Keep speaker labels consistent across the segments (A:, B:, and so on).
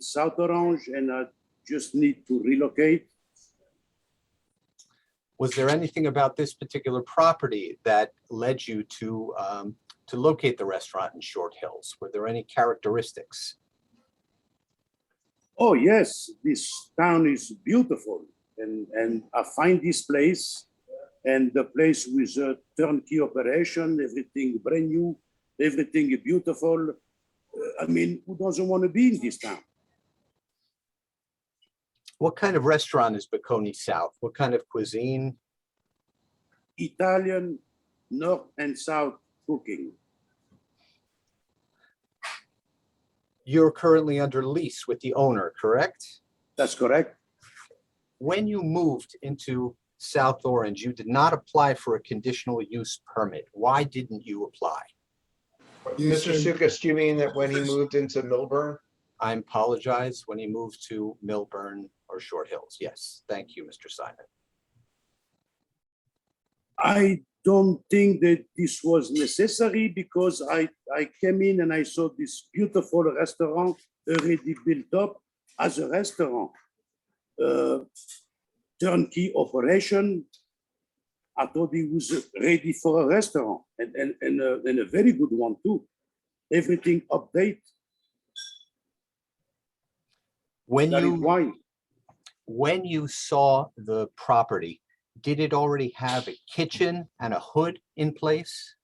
A: South Orange and I just need to relocate.
B: Was there anything about this particular property that led you to, um, to locate the restaurant in Short Hills? Were there any characteristics?
A: Oh, yes, this town is beautiful. And, and I find this place and the place with a turnkey operation, everything brand new, everything beautiful. Uh, I mean, who doesn't want to be in this town?
B: What kind of restaurant is Bocconi South? What kind of cuisine?
A: Italian North and South cooking.
B: You're currently under lease with the owner, correct?
A: That's correct.
B: When you moved into South Orange, you did not apply for a conditional use permit. Why didn't you apply?
C: You
D: Mr.
C: said-
D: Sukas, do you mean that when he moved into Milburn?
B: I apologize when he moved to Milburn or Short Hills. Yes, thank you, Mr. Simon.
A: I don't think that this was necessary because I, I came in and I saw this beautiful restaurant already built up as a restaurant. Uh, turnkey operation. I thought it was ready for a restaurant and, and, and, a, and a very good one too. Everything update,
B: When
A: that is
B: you
A: why.
B: when you saw the property, did it already have a kitchen and a hood in place?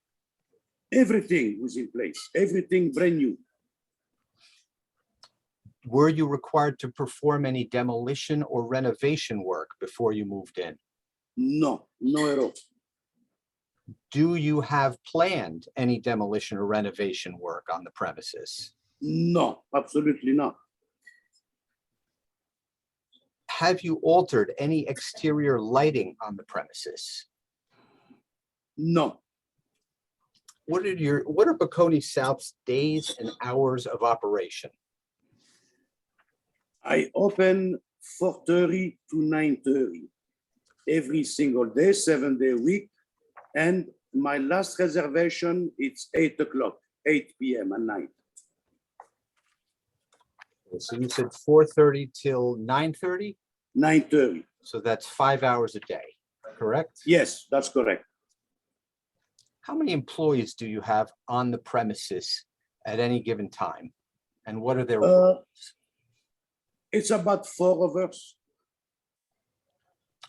A: Everything was in place, everything brand new.
B: Were you required to perform any demolition or renovation work before you moved in?
A: No, no at all.
B: Do you have planned any demolition or renovation work on the premises?
A: No, absolutely not.
B: Have you altered any exterior lighting on the premises?
A: No,
B: What are your, what are Bocconi South's days and hours of operation?
A: I open 4:30 to 9:30 every single day, seven day a week. And my last reservation, it's eight o'clock, eight PM at night.
B: So you said four thirty till nine thirty,
A: 9:30.
B: so that's five hours a day, correct?
A: Yes, that's correct.
B: How many employees do you have on the premises at any given time? And what are their,
A: Uh, It's about four of us.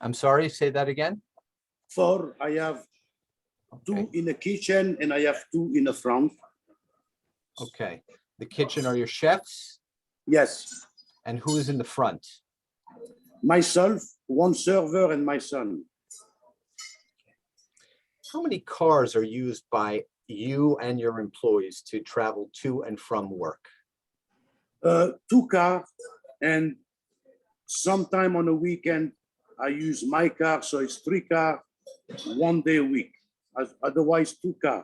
B: I'm sorry, say that again?
A: Four, I have two
B: Okay,
A: in the kitchen and I have two in the front.
B: Okay. the kitchen are your chefs
A: Yes,
B: and who is in the front?
A: myself, one server and my son.
B: How many cars are used by you and your employees to travel to and from work?
A: uh, two car and sometime on a weekend i use my car so it's three car one day a week As- otherwise two car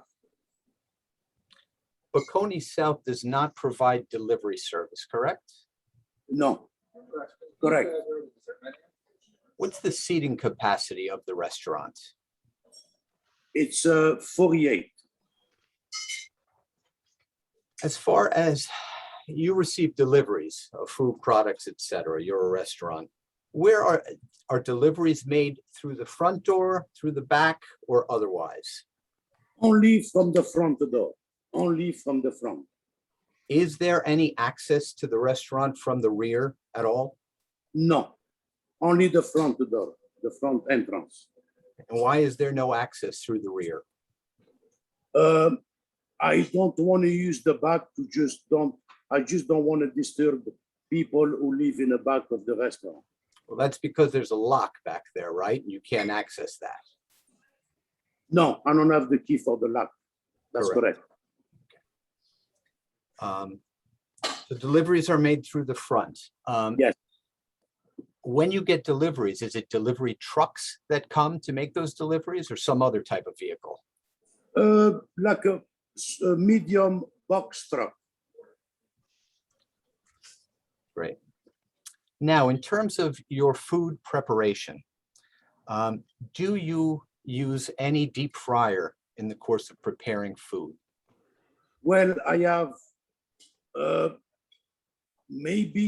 B: Bocconi South does not provide delivery service, correct?
A: no correct
B: What's the seating capacity of the restaurant?
A: it's uh, 48
B: As far as you receive deliveries of food products, et cetera, you're a restaurant. Where are, are deliveries made through the front door, through the back, or otherwise?
A: only from the front door only from the front
B: Is there any access to the restaurant from the rear at all?
A: no only the front door the front entrance
B: And why is there no access through the rear?
A: Um, I don't want to use the back to just don't, I just don't want to disturb people who live in the back of the restaurant.
B: Well, that's because there's a lock back there, right? And you can't access that.
A: No, I don't have the key for the lock. That's
B: Correct.
A: correct.
B: Um, The deliveries are made through the front. Um,
A: Yes.
B: When you get deliveries, is it delivery trucks that come to make those deliveries or some other type of vehicle?
A: Uh, like a, s- a medium box truck.
B: Now, in terms of your food preparation, um, do you use any deep fryer in the course of preparing food?
A: Well, I have, uh, maybe